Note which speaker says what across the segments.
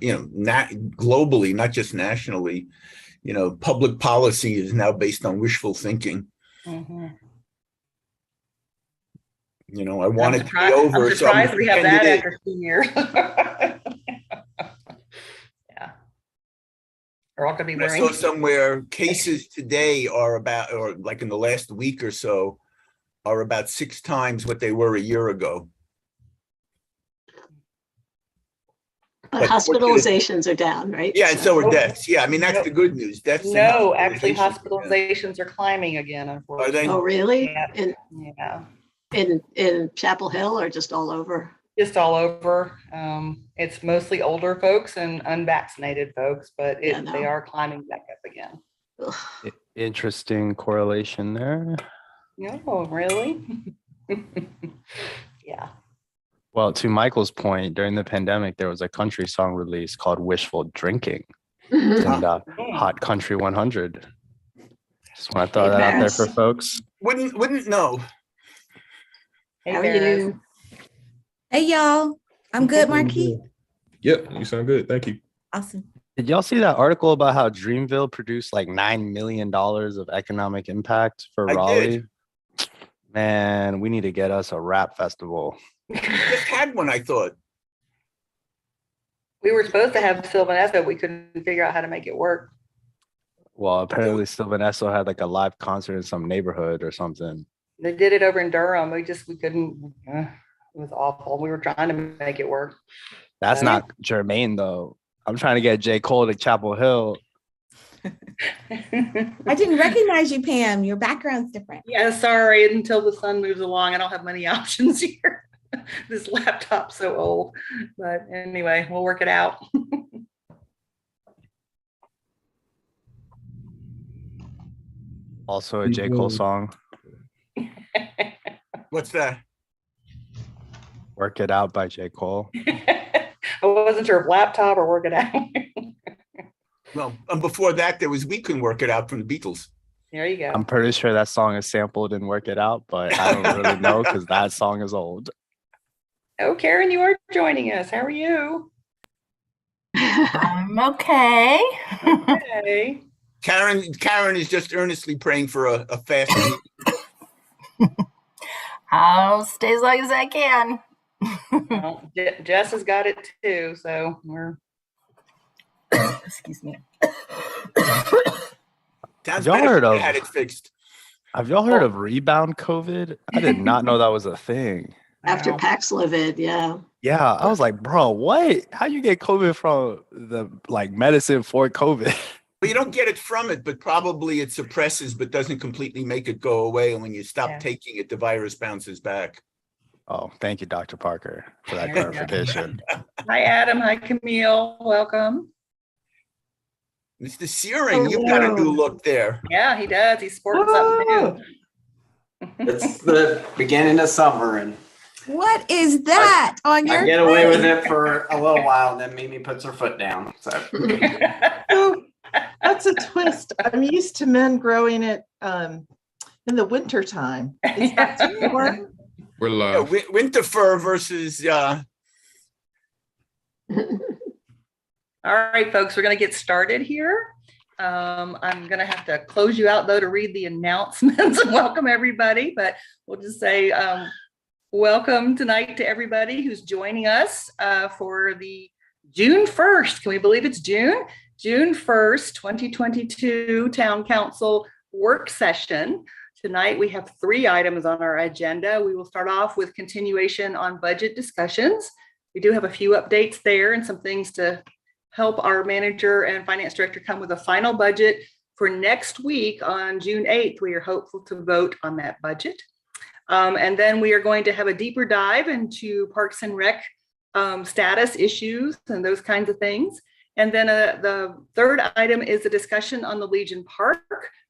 Speaker 1: you know, not globally, not just nationally, you know, public policy is now based on wishful thinking.
Speaker 2: Mm-hmm.
Speaker 3: Mhm.
Speaker 1: You know, I
Speaker 3: I'm
Speaker 1: want it to be
Speaker 3: surprised-
Speaker 1: over.
Speaker 3: I'm
Speaker 1: so I'm gonna
Speaker 3: surprised we have
Speaker 1: pretend
Speaker 3: that
Speaker 1: it is.
Speaker 3: after senior. Yeah. They're all gonna be
Speaker 1: And I
Speaker 3: wearing,
Speaker 1: saw somewhere cases today are about, or like in the last week or so, are about six times what they were a year ago.
Speaker 2: But
Speaker 1: But fortunate-
Speaker 2: hospitalizations are down, right?
Speaker 1: Yeah, and so
Speaker 3: Oh. No.
Speaker 1: are deaths. Yeah, I mean, that's the good news. Deaths. and
Speaker 3: no, actually
Speaker 1: hospitalizations.
Speaker 3: hospitalizations are climbing again, unfortunately.
Speaker 2: Oh, really?
Speaker 3: Yeah.
Speaker 2: In,
Speaker 3: Yeah,
Speaker 2: in, in Chapel Hill or just all over?
Speaker 3: just all over. Um, it's mostly older folks and unvaccinated folks, but
Speaker 2: Yeah,
Speaker 3: it,
Speaker 2: no.
Speaker 3: they are climbing back up again.
Speaker 2: Ugh.
Speaker 4: I- Interesting correlation there.
Speaker 3: No, really? Yeah.
Speaker 4: Well, to Michael's point, during the pandemic, there was a country song release called Wishful Drinking and uh, Hot Country 100. Just want to throw that out there for
Speaker 2: Yes.
Speaker 4: folks.
Speaker 1: Wouldn't, wouldn't know.
Speaker 3: Hey,
Speaker 2: How are
Speaker 3: Barris.
Speaker 2: you?
Speaker 5: Hey y'all, I'm good, Marquis.
Speaker 6: Yep, you sound good. Thank you.
Speaker 5: Awesome.
Speaker 4: Did y'all see that article about how Dreamville produced like $9 million of economic impact for
Speaker 1: I did.
Speaker 4: Raleigh? Man, we need to get us a rap festival.
Speaker 1: Just had one, I thought.
Speaker 3: We were supposed to have Sylvanessa, but we couldn't figure out how to make it work.
Speaker 4: Well, apparently Sylvanesso had like a live concert in some neighborhood or something.
Speaker 3: They did it over in Durham. We just, we couldn't, uh, it was awful. We were trying to make it work.
Speaker 4: That's
Speaker 3: Yeah.
Speaker 4: not germane though. I'm trying to get J. Cole to Chapel Hill.
Speaker 5: I didn't recognize you, Pam. Your background's different.
Speaker 3: Yeah, sorry, until the sun moves along, I don't have many options here. This laptop's so old, but anyway, we'll work it out.
Speaker 4: Also a J. Cole
Speaker 6: Mhm.
Speaker 4: song.
Speaker 1: What's that?
Speaker 4: Work It Out by J. Cole.
Speaker 3: I wasn't sure if laptop or work it out.
Speaker 1: Well, and before that, there was We Can Work It Out from the Beatles.
Speaker 3: There you go.
Speaker 4: I'm pretty sure that song is sampled in Work It Out, but I don't really know because that song is old.
Speaker 3: Oh, Karen, you are joining us. How are you?
Speaker 7: I'm okay.
Speaker 3: Hey.
Speaker 1: Karen, Karen is just earnestly praying for a, a fast.
Speaker 7: I'll stay as long as I can.
Speaker 3: Well, Je- Jess has got it too, so we're
Speaker 7: Excuse me.
Speaker 1: Sounds
Speaker 4: Y'all
Speaker 1: better if
Speaker 4: heard
Speaker 1: they
Speaker 4: of-
Speaker 1: Had it fixed.
Speaker 4: Have y'all heard of rebound COVID? I did not know that was a thing.
Speaker 2: After
Speaker 3: wow.
Speaker 2: Paxlovid, yeah.
Speaker 4: Yeah, I was like, bro, what? How you get COVID from the like medicine for COVID?
Speaker 1: Well, you don't get it from it, but probably it suppresses, but doesn't completely make it go away. And when you stop
Speaker 3: Yeah.
Speaker 1: taking it, the virus bounces back.
Speaker 4: Oh, thank you, Dr. Parker, for that
Speaker 3: There you go.
Speaker 4: clarification.
Speaker 3: Hi, Adam. Hi, Camille. Welcome.
Speaker 1: Mr. Searing, you've got a new
Speaker 2: Hello.
Speaker 1: look there.
Speaker 3: Yeah, he does. He's sporting something new.
Speaker 8: It's the beginning of summer and
Speaker 5: What is that on your?
Speaker 8: I get away with
Speaker 5: plate?
Speaker 8: it for a little while and then Mimi puts her foot down. So
Speaker 9: Oh, That's a twist. I'm used to men growing it um, in the wintertime. Is that too warm?
Speaker 6: We're
Speaker 1: Yeah,
Speaker 6: live.
Speaker 1: wi- Winter fur versus, uh,
Speaker 3: All right, folks, we're going to get started here. Um, I'm going to have to close you out though to read the announcements and welcome everybody, but we'll just say um, welcome tonight to everybody who's joining us uh, for the June 1st. Can we believe it's June? June 1st, 2022 Town Council Work Session. Tonight, we have three items on our agenda. We will start off with continuation on budget discussions. We do have a few updates there and some things to help our manager and finance director come with a final budget for next week on June 8th. We are hopeful to vote on that budget. Um, and then we are going to have a deeper dive into Parks and Rec um, status issues and those kinds of things. And then uh, the third item is a discussion on the Legion Park.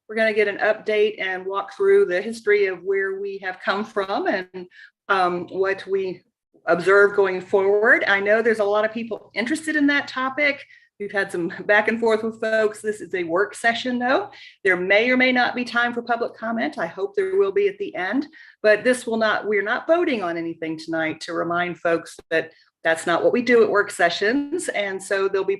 Speaker 3: We're going to get an update and walk through the history of where we have come from and um, what we observe going forward. I know there's a lot of people interested in that topic. We've had some back and forth with folks. This is a work session, though. There may or may not be time for public comment. I hope there will be at the end, but this will not, we're not voting on anything tonight to remind folks that That's not what we do at work sessions. And so there'll be